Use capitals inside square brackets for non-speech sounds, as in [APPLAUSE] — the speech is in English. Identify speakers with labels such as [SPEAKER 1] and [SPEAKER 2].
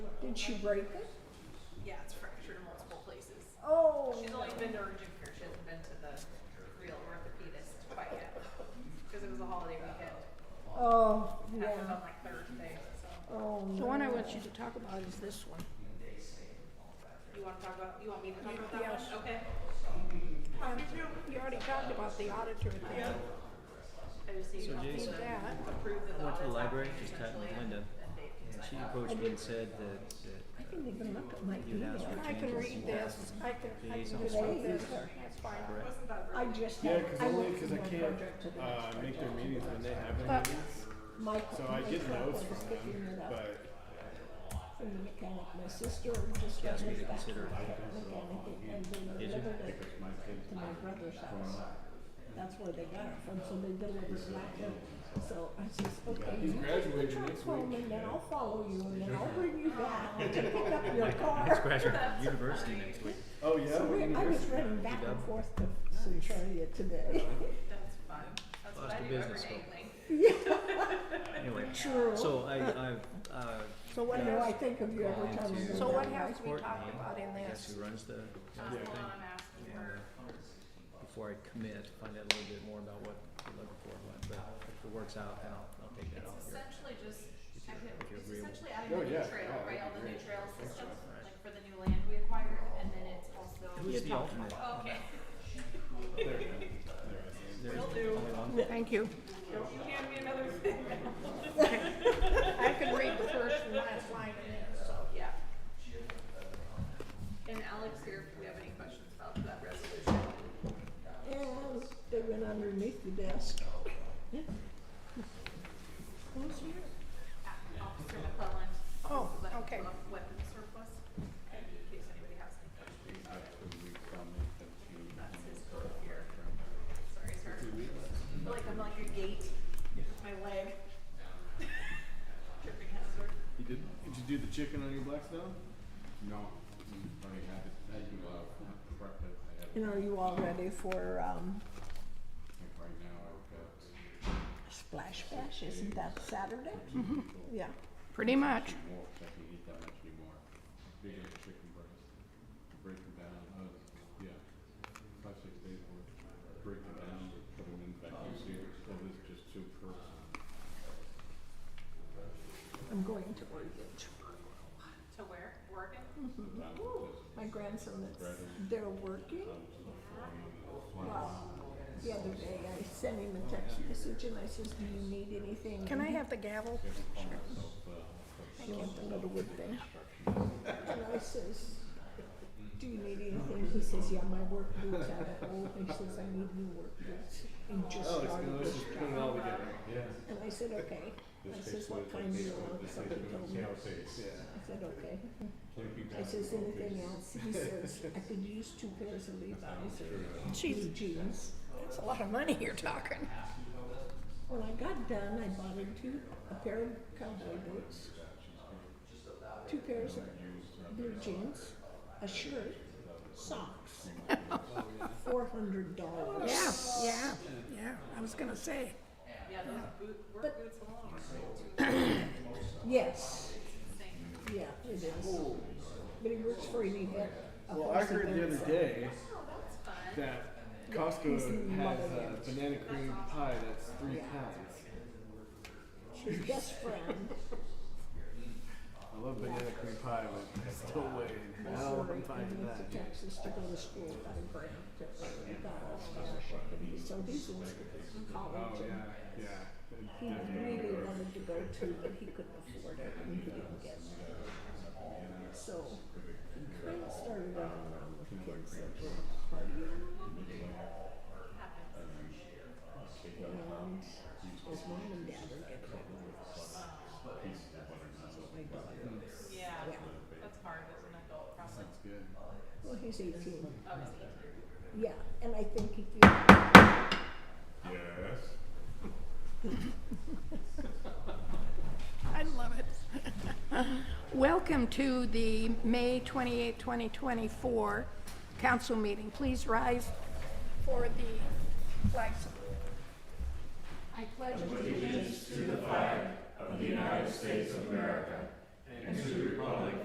[SPEAKER 1] Did she break it?
[SPEAKER 2] Yeah, it's fractured in multiple places.
[SPEAKER 1] Oh.
[SPEAKER 2] She's only been to her gym here. She hasn't been to the real orthopedist quite yet because it was a holiday weekend.
[SPEAKER 1] Oh,
[SPEAKER 2] Happened
[SPEAKER 1] yeah.
[SPEAKER 2] on like Thursday. So
[SPEAKER 1] Oh,
[SPEAKER 3] The one I
[SPEAKER 1] no.
[SPEAKER 3] want you to talk about is this one.
[SPEAKER 2] you want to talk about? You want me to talk about that
[SPEAKER 3] Yes.
[SPEAKER 2] one? Okay.
[SPEAKER 3] Uh, You already talked about the auditor thing.
[SPEAKER 2] I just need
[SPEAKER 4] So
[SPEAKER 2] to
[SPEAKER 4] Jason,
[SPEAKER 3] Yeah.
[SPEAKER 2] approve that
[SPEAKER 4] I
[SPEAKER 2] the
[SPEAKER 4] went to the
[SPEAKER 2] audit's
[SPEAKER 4] library,
[SPEAKER 2] happening
[SPEAKER 4] just tapped
[SPEAKER 2] essentially,
[SPEAKER 4] Linda,
[SPEAKER 2] and Dave can
[SPEAKER 4] and
[SPEAKER 2] sign
[SPEAKER 4] she
[SPEAKER 2] off.
[SPEAKER 4] approached me and said that, that
[SPEAKER 1] I didn't even look at my
[SPEAKER 4] you would ask
[SPEAKER 1] email.
[SPEAKER 4] for
[SPEAKER 3] I can
[SPEAKER 4] changes.
[SPEAKER 3] read this, I can, I can
[SPEAKER 4] Liaison.
[SPEAKER 3] just read this,
[SPEAKER 1] Liaison.
[SPEAKER 3] that's fine.
[SPEAKER 4] Correct.
[SPEAKER 2] Wasn't that
[SPEAKER 1] I
[SPEAKER 2] really-
[SPEAKER 1] just.
[SPEAKER 5] Yeah,
[SPEAKER 1] had-
[SPEAKER 5] because
[SPEAKER 1] I
[SPEAKER 5] only
[SPEAKER 1] looked
[SPEAKER 5] because I
[SPEAKER 1] at my
[SPEAKER 5] can't
[SPEAKER 1] project today.
[SPEAKER 5] uh, make their meetings when they have their
[SPEAKER 3] But-
[SPEAKER 5] meetings.
[SPEAKER 1] My-
[SPEAKER 5] So I
[SPEAKER 1] my
[SPEAKER 5] get
[SPEAKER 1] truck
[SPEAKER 5] notes
[SPEAKER 1] was
[SPEAKER 5] from
[SPEAKER 1] picking it
[SPEAKER 5] them,
[SPEAKER 1] up
[SPEAKER 5] but
[SPEAKER 1] From the mechanic, my sister just.
[SPEAKER 4] she asked me to
[SPEAKER 1] got back
[SPEAKER 4] consider
[SPEAKER 1] from the mechanic and they
[SPEAKER 4] Did you?
[SPEAKER 1] delivered it to my brother's house. That's where they got it from, so they delivered it back there. So I says, okay,
[SPEAKER 5] he's
[SPEAKER 1] you take the
[SPEAKER 5] graduating
[SPEAKER 1] truck
[SPEAKER 5] next
[SPEAKER 1] home
[SPEAKER 5] week.
[SPEAKER 1] and then I'll follow you and then
[SPEAKER 5] [LAUGHS]
[SPEAKER 1] I'll bring you back to pick up your car.
[SPEAKER 4] it's graduating from university next week.
[SPEAKER 5] oh yeah,
[SPEAKER 1] So
[SPEAKER 5] what
[SPEAKER 1] we, I was
[SPEAKER 5] university?
[SPEAKER 1] running back and forth uh, to Centralia today.
[SPEAKER 2] That's fun. That's what
[SPEAKER 4] Lost
[SPEAKER 2] I
[SPEAKER 4] a
[SPEAKER 2] do every
[SPEAKER 4] business
[SPEAKER 2] day.
[SPEAKER 4] call.
[SPEAKER 2] Like,
[SPEAKER 4] Anyway,
[SPEAKER 1] True.
[SPEAKER 4] so I, I, uh,
[SPEAKER 3] So what,
[SPEAKER 1] I know I think of you every
[SPEAKER 4] Going
[SPEAKER 1] time. I
[SPEAKER 4] to-
[SPEAKER 1] go
[SPEAKER 3] so what
[SPEAKER 1] down.
[SPEAKER 3] have we
[SPEAKER 4] Courtney,
[SPEAKER 3] talked about in
[SPEAKER 4] I guess
[SPEAKER 3] this?
[SPEAKER 4] who runs the, runs the
[SPEAKER 2] that's the
[SPEAKER 4] thing,
[SPEAKER 2] one I'm asking
[SPEAKER 4] and,
[SPEAKER 2] her.
[SPEAKER 4] uh, before I commit, find out a little bit more about what we're looking for, and what, but if it works out, then I'll, I'll take
[SPEAKER 2] It's
[SPEAKER 4] that off here.
[SPEAKER 2] essentially just, I could,
[SPEAKER 4] you're
[SPEAKER 2] it's
[SPEAKER 4] agreeable.
[SPEAKER 2] essentially adding
[SPEAKER 5] Oh,
[SPEAKER 2] the new
[SPEAKER 5] yeah,
[SPEAKER 2] trail,
[SPEAKER 5] yeah,
[SPEAKER 2] right,
[SPEAKER 5] that'd
[SPEAKER 2] all
[SPEAKER 5] be
[SPEAKER 2] the new
[SPEAKER 5] great.
[SPEAKER 2] trail system, like for the new land we acquired, and then it's also.
[SPEAKER 4] Who's the alternate?
[SPEAKER 2] Oh, Okay,
[SPEAKER 4] There
[SPEAKER 2] will
[SPEAKER 4] is
[SPEAKER 2] do.
[SPEAKER 4] only one?
[SPEAKER 3] Thank you.
[SPEAKER 2] You hand me another [LAUGHS] thing.
[SPEAKER 3] I can read the first and last line in this, so.
[SPEAKER 2] Yeah. And Alex here, if we have any questions about that resolution.
[SPEAKER 1] And they went underneath the desk. Who's here?
[SPEAKER 2] Uh, Officer McClellan.
[SPEAKER 3] Oh,
[SPEAKER 2] this is a
[SPEAKER 3] okay.
[SPEAKER 2] Weapons surplus, in case anybody has any questions about it. That's his code here. Sorry, sir. I feel like I'm like a gate with my leg. [LAUGHS] Tripping hazard.
[SPEAKER 5] You did? Did you do the chicken on your blackstone?
[SPEAKER 6] No, I already have it. I do, uh, breakfast. I have,
[SPEAKER 1] And are you all ready for, um,
[SPEAKER 6] like, right now, I've got
[SPEAKER 1] Splash Bash? Isn't that Saturday? Yeah.
[SPEAKER 3] Pretty much.
[SPEAKER 6] more, so I can eat that much anymore. Big old chicken breast. Break them down, uh, yeah, five, six days worth. Break them down, put them in vacuum sealers, so it's just two per.
[SPEAKER 1] I'm going to Oregon tomorrow.
[SPEAKER 2] To where? Oregon?
[SPEAKER 1] My grandson that's there working. Well, the other day I sent him a text message and I says, do you need anything?
[SPEAKER 3] Can I have the gavel?
[SPEAKER 6] uh,
[SPEAKER 1] She wants a little wood thing. And I says, do you need anything? He says, yeah, my work boots out of old. And he says, I need new work boots. And just
[SPEAKER 5] Oh, it's
[SPEAKER 1] started
[SPEAKER 5] gonna,
[SPEAKER 1] this
[SPEAKER 5] let's just put it all
[SPEAKER 1] job.
[SPEAKER 5] together. Yeah.
[SPEAKER 1] And I said, okay. I says, what kind do you want? Somebody told me.
[SPEAKER 5] Yeah.
[SPEAKER 1] I said, okay. I says, anything else? He says, I could use two pairs of Levi's or two
[SPEAKER 3] Jeez.
[SPEAKER 1] jeans.
[SPEAKER 3] That's a lot of money you're talking.
[SPEAKER 1] When I got done, I bought him two, a pair of cowboy boots, two pairs of blue jeans, a shirt, socks. Four hundred dollars.
[SPEAKER 3] Yeah, yeah, yeah, I was gonna say.
[SPEAKER 2] Yeah, those boot, work
[SPEAKER 1] But-
[SPEAKER 2] boots alone are
[SPEAKER 1] Yes,
[SPEAKER 2] insane.
[SPEAKER 1] yeah, it is. But he works for an event. a
[SPEAKER 5] Well, I
[SPEAKER 1] horse
[SPEAKER 5] heard the
[SPEAKER 1] event,
[SPEAKER 5] other
[SPEAKER 1] so-
[SPEAKER 2] Oh,
[SPEAKER 5] day
[SPEAKER 2] that's fun.
[SPEAKER 5] that
[SPEAKER 1] He's
[SPEAKER 5] Costco
[SPEAKER 1] in
[SPEAKER 5] has
[SPEAKER 1] love
[SPEAKER 5] a
[SPEAKER 1] with it.
[SPEAKER 5] banana cream pie that's three pounds.
[SPEAKER 1] His best friend,
[SPEAKER 5] I love banana cream pie, but I still waiting. I
[SPEAKER 1] Missouri,
[SPEAKER 5] want to buy
[SPEAKER 1] and went to
[SPEAKER 5] that.
[SPEAKER 1] Texas to go to school, got a grant, he got a scholarship, and he- so he's in college
[SPEAKER 5] Oh,
[SPEAKER 1] and
[SPEAKER 5] yeah,
[SPEAKER 1] He
[SPEAKER 5] yeah.
[SPEAKER 1] really wanted to go too, but he couldn't afford it and he didn't get it. So he kind of started running around with kids that were partying. And his mom and dad are getting divorced. So my daughter,
[SPEAKER 2] Yeah,
[SPEAKER 1] yeah.
[SPEAKER 2] that's hard as an adult process.
[SPEAKER 5] Good.
[SPEAKER 1] Well, he's eighteen.
[SPEAKER 2] Oh, it's easier.
[SPEAKER 1] Yeah, and I think he feels,
[SPEAKER 6] Yes.
[SPEAKER 3] I love it. [LAUGHS] Welcome to the May 28, 2024 council meeting. Please rise for the flag salute. I pledge allegiance